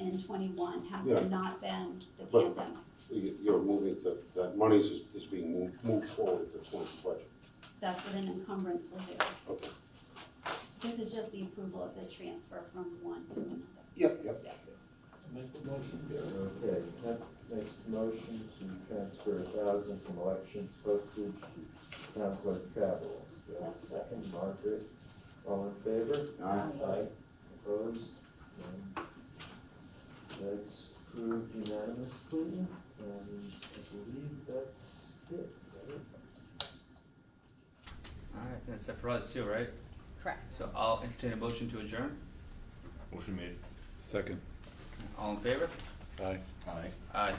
and twenty-one had Yeah. there not been the But- pandemic. You- You're moving to, that monies is, is being moved, moved forward to twenty budget, That's what an encumbrance will do. okay. This is just the approval of the transfer from one to another. Yep, yep. Make the motion, Gary. Okay, Kent makes the motion to transfer a thousand from election postage to town clerk travel. Do I have a second, Margaret? All in favor? Aye. Aye. Opposed? None. That's approved unanimously, and I believe that's it, right? Alright, that's it for us too, right? Correct. So I'll entertain a motion to adjourn. Motion made. Second. All in favor? Aye. Aye.